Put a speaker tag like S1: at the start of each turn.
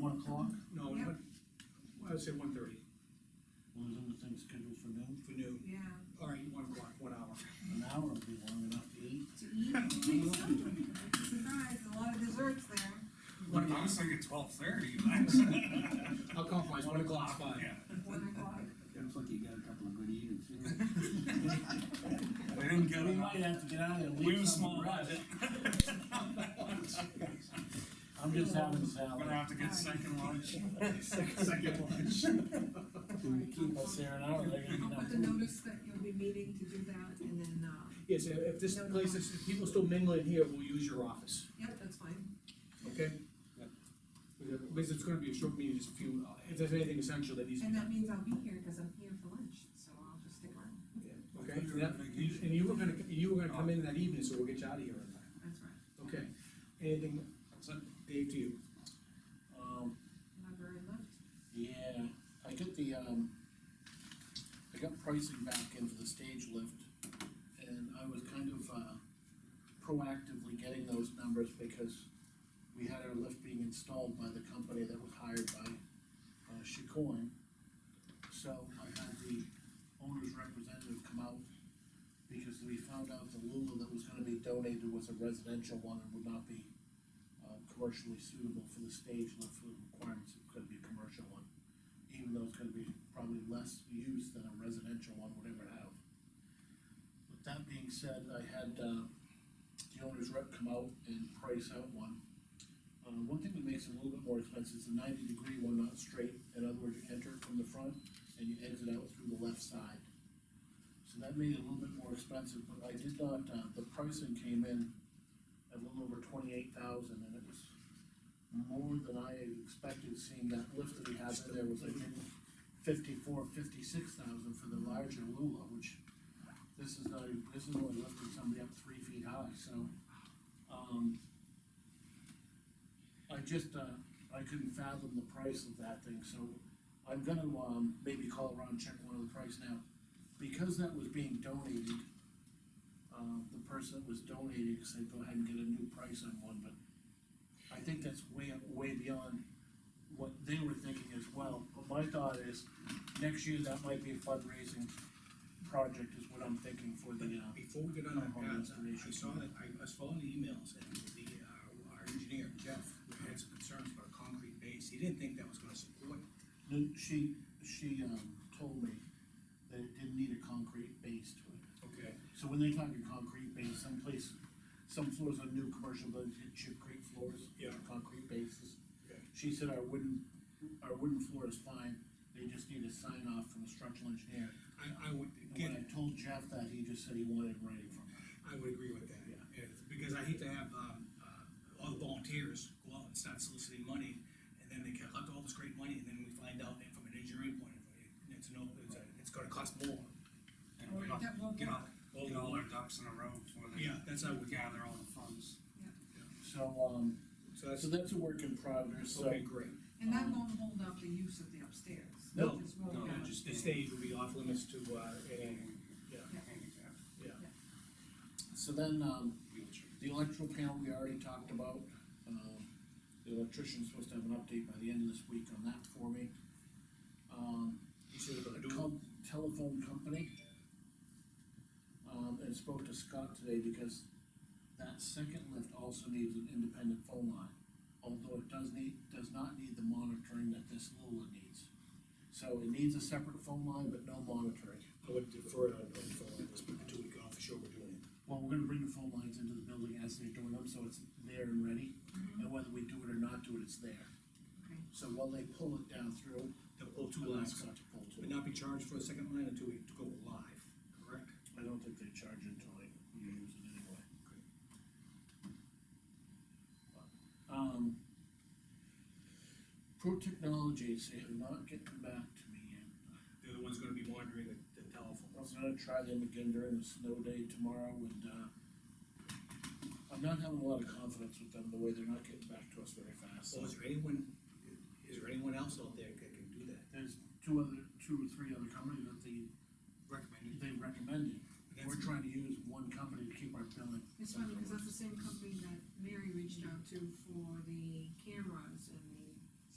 S1: One o'clock,
S2: No,
S3: Yep.
S2: what, I would say one thirty
S1: those other things scheduled for noon,
S2: for noon,
S3: Yeah,
S2: all right, one o'clock, one hour.
S1: an hour would be long enough to eat.
S3: to eat, I think so. It's a surprise, a lot of desserts there.
S2: One
S4: I
S2: o'clock,
S4: was thinking twelve thirty, but.
S2: I'll compromise, one o'clock's fine.
S4: Yeah,
S3: One o'clock.
S5: Looks like you got a couple of good eaters.
S4: They didn't get
S1: We
S4: it.
S1: might have to get out of there. and
S4: We
S1: leave
S4: were
S1: some
S4: small
S1: for us.
S4: budget,
S1: I'm just having
S4: gonna
S1: salad.
S4: have to get second lunch.
S2: Second lunch.
S1: To keep us there an hour, they're gonna
S3: I'll
S1: be
S3: put the notice that you'll be meeting to do that, and then, uh,
S2: Yes, if if this place is, if people still mingling here, we'll use your office,
S3: yep, that's fine.
S2: okay? Because it's gonna be a short meeting, just a few, uh, if there's anything essential that needs to be
S3: And
S2: done,
S3: that means I'll be here, cause I'm here for lunch, so I'll just stick around,
S2: okay? And that- And you were gonna, you were gonna come in that evening, so we'll get you out of here in time,
S3: that's right.
S2: okay? Anything,
S4: That's it.
S2: Dave, to you?
S1: Um,
S3: Library left.
S1: yeah, I got the, um, I got pricing back in for the stage lift, and I was kind of, uh, proactively getting those numbers because we had our lift being installed by the company that was hired by, uh, Chicoine. So I had the owner's representative come out because we found out the Lula that was gonna be donated was a residential one and would not be uh, commercially suitable for the stage lift for the requirements, it could be a commercial one. Even though it's gonna be probably less used than a residential one would ever have. With that being said, I had, uh, the owner's rep come out and price out one. Uh, one thing that makes it a little bit more expensive is the ninety degree one, not straight, in other words, you enter from the front and you exit out through the left side. So that made it a little bit more expensive, but I did not, uh, the pricing came in at a little over twenty-eight thousand, and it was more than I expected, seeing that lift that he has in there was I think fifty-four, fifty-six thousand for the larger Lula, which this is not, this is only lifting somebody up three feet high, so, um, I just, uh, I couldn't fathom the price of that thing, so I'm gonna, um, maybe call around, and check one of the price now. Because that was being donated, um, the person that was donating said, go ahead and get a new price on one, but I think that's way, way beyond what they were thinking as well. But my thought is, next year, that might be a fundraising project is what I'm thinking for the, uh,
S6: Before we get on that path, I saw that, I I was following the emails, and the, uh, our engineer, Jeff, had some concerns about a concrete base, he didn't think that was gonna support.
S1: No, she, she, um, told me that it didn't need a concrete base to it.
S6: Okay.
S1: So when they talk a concrete base, some place, some floors on new commercial buildings, hit chipcrete floors.
S6: Yeah.
S1: Concrete bases.
S6: Okay.
S1: She said our wooden, our wooden floor is fine, they just need a sign off from a structural engineer.
S6: I, I would,
S1: And
S6: again,
S1: when I told Jeff that, he just said he wanted writing from her.
S6: I would agree with that,
S1: Yeah.
S6: yeah, because I hate to have, um, uh, all the volunteers go out and start soliciting money, and then they collect all this great money, and then we find out that from an engineering point of view, it's no, it's, a- it's gonna cost more.
S4: And
S3: Or
S4: Get all-
S3: that won't
S4: get
S3: work.
S4: all, get all our ducks in a row before they.
S6: Yeah, that's how we-
S4: Gather all the funds.
S1: So, um,
S6: So that's,
S1: so that's a work in progress, so.
S6: okay, great.
S3: And that won't hold up the use of the upstairs.
S1: No,
S3: It just won't
S4: no,
S3: happen.
S4: just-
S2: The stage will be off limits to, uh, any, yeah,
S4: Handicap.
S2: yeah.
S1: So then, um,
S4: Wheelchair.
S1: The electrical panel, we already talked about, um, the electrician's supposed to have an update by the end of this week on that for me. Um,
S6: You said we're gonna
S1: the
S6: do it.
S1: com- telephone company. Um, and spoke to Scott today because that second lift also needs an independent phone line. Although it does need, does not need the monitoring that this Lula needs. So it needs a separate phone line, but no monitoring.
S2: I would defer it on, on the phone, let's put the two week off, for sure we're doing it.
S1: Well, we're gonna bring the phone lines into the building as they're doing them, so it's there and ready, and whether we do it or not do it, it's there.
S3: Okay.
S1: So while they pull it down through,
S6: They'll pull two
S1: I'll
S6: lines,
S1: ask them to pull to it.
S6: but not be charged for a second line until we go live, correct?
S1: I don't think they charge until they use it anyway. Um. Pro Technologies, they have not gotten back to me yet.
S6: They're the ones gonna be monitoring the, the telephone.
S1: I was gonna try them again during the snow day tomorrow and, uh, I'm not having a lot of confidence with them, the way they're not getting back to us very fast.
S6: So is there anyone, is there anyone else out there that can do that?
S1: There's two other, two or three other companies that they,
S6: Recommended.
S1: they recommended. We're
S6: That's,
S1: trying to use one company to keep our billing.
S3: It's funny, because that's the same company that Mary reached out to for the cameras and